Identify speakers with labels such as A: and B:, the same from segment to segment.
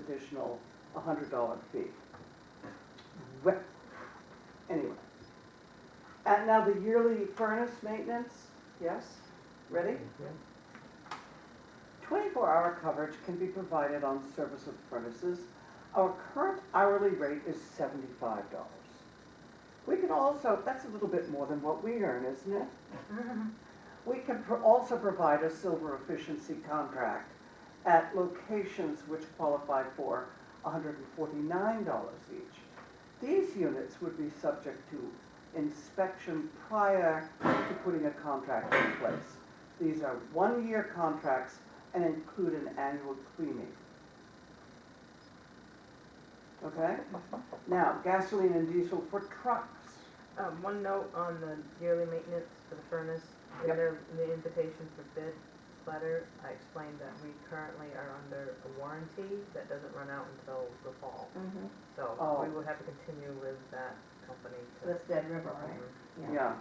A: additional hundred dollar fee. Well, anyway. And now the yearly furnace maintenance, yes, ready? Twenty-four hour coverage can be provided on service of furnaces. Our current hourly rate is seventy-five dollars. We can also, that's a little bit more than what we earn, isn't it? We can pro- also provide a silver efficiency contract at locations which qualify for $149 each. These units would be subject to inspection prior to putting a contract in place. These are one-year contracts and include an annual cleaning. Okay? Now, gasoline and diesel for trucks.
B: Um, one note on the yearly maintenance for the furnace, in
A: Yep.
B: their, the invitation for bid letter, I explained that we currently are under a warranty that doesn't run out until the fall. So
A: Oh.
B: we will have to continue with that company to.
C: That's Dead River, right?
B: I,
A: Yeah,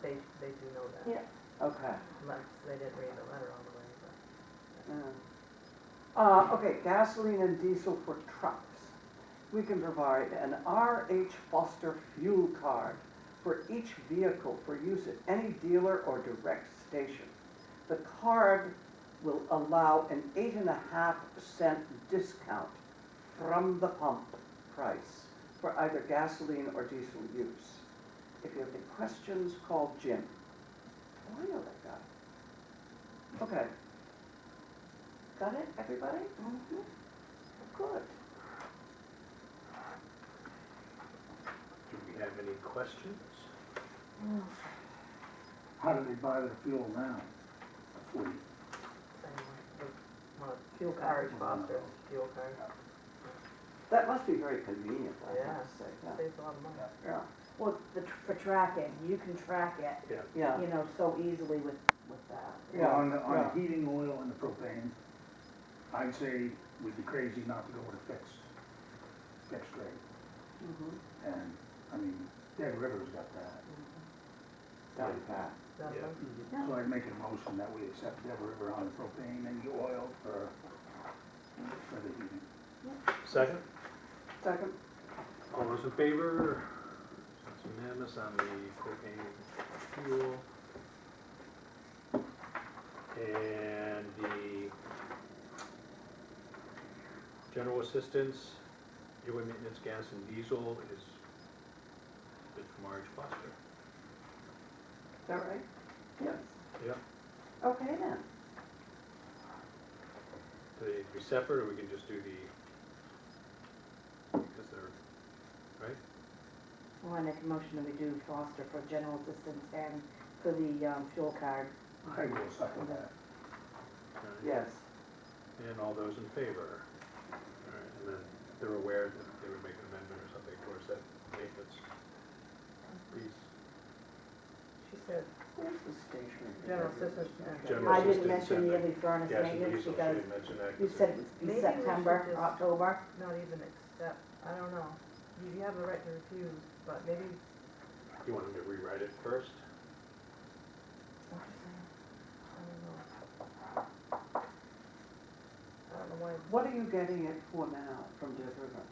B: they, they do know that.
C: Yeah.
A: okay.
B: Unless they didn't read the letter all the way, but.
A: Uh, okay, gasoline and diesel for trucks. We can provide an RH Foster fuel card for each vehicle for use at any dealer or direct station. The card will allow an eight and a half cent discount from the pump price for either gasoline or diesel use. If you have any questions, call Jim. Oh, I know that guy. Okay. Got it, everybody? Mm-hmm. Good.
D: Do we have any questions?
C: Oh.
E: How do they buy their fuel now? Fleet.
B: anyway, the- One of fuel
E: card.
B: cars, Foster's fuel card,
A: That must be very convenient, I
B: Yeah.
A: have to say, yeah.
B: saves a lot of money.
A: Yeah,
C: Well, the, tr- for tracking, you can track it,
A: yeah,
C: you know, so easily with, with that.
A: Yeah,
E: On the,
A: yeah.
E: on the heating oil and the propane, I'd say we'd be crazy not to go with a fixed, fixed rate.
A: mhm,
E: And, I mean, Dead River's got that.
A: got that.
B: That's
D: Yeah.
B: what-
E: So I'd make a motion that we accept Dead River on the propane and the oil for, for the heating.
D: Second?
A: Second,
D: All those in favor? It's unanimous on the propane fuel. And the general assistance, yearly maintenance, gas and diesel is bid from Marge Foster.
A: is that right? Yes.
D: Yep.
A: Okay then,
D: Do they need to be separate, or we can just do the, because they're, right?
C: I wanna make a motion that we do foster for general assistance and for the, um, fuel card.
E: I
D: Mm-hmm.
E: will second that.
D: Alright.
A: yes,
D: And all those in favor? All right, and then they're aware that they would make an amendment or something towards that maintenance piece.
B: She said,
A: where's the stationery?
B: general assistance. and-
D: General
C: I didn't
D: assistance
C: mention the
D: and
C: yearly furnace
D: Gas and
C: maintenance
D: diesel, she
C: because
D: didn't mention that.
C: you
D: 'cause
C: said
D: it-
C: it's
B: Maybe we
C: be
B: should
C: September,
B: just-
C: October.
B: not even accept, I don't know, you you have the right to refuse, but maybe,
D: You want them to rewrite it first?
B: I don't know. I don't know why,
A: What are you getting it for now from Dead River?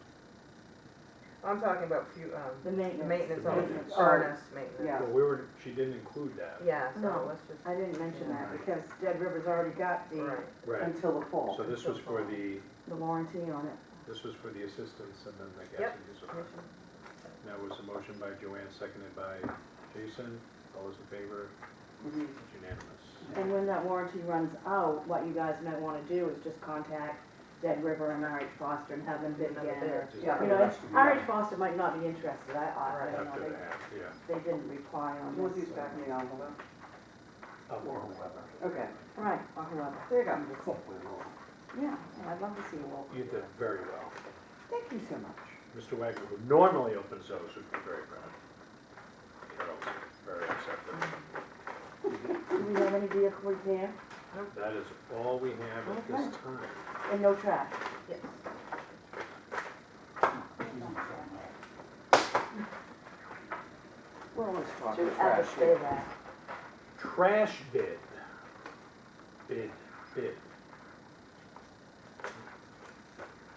B: I'm talking about few, um,
C: The maintenance.
B: maintenance on
D: Maintenance.
B: the furnace
A: Yeah.
B: maintenance.
D: Well, we were, she didn't include that.
B: Yeah, so
C: No.
B: let's just,
C: I didn't mention that because Dead River's already got the,
B: right,
D: Right,
A: Until the fall.
D: so this was for the,
C: the warranty on it.
D: this was for the assistance and then the gas
B: Yep.
D: and diesel.
B: motion,
D: That was a motion by Joanne, seconded by Jason. All those in favor?
A: Mhm.
D: It's unanimous.
C: And when that warranty runs out, what you guys might wanna do is just contact Dead River and RH Foster and have them bid
B: Another
C: again or
B: bid.
D: Just
A: Yeah.
C: You know, RH Foster might not be interested, I, I, you
D: After
C: know,
D: that, yeah.
C: they, they didn't reply on
A: Who's
C: this.
A: these back in the envelope?
E: Or whoever.
A: Okay,
C: Right, or whoever,
A: there you go.
E: Cool. We're all-
C: yeah, yeah, I'd love to see a wall.
D: You did very well.
A: Thank you so much.
D: Mr. Wagner, who normally opens those, would be very proud. Carol, very accepting.
C: Do we have any vehicle repair
D: That is all we have at this time.
C: and no trash?
B: yes.
E: He's on the phone now.
A: We're always talking
C: Should
A: trash.
C: add to say
A: here.
C: that.
D: Trash bid. Bid, bid.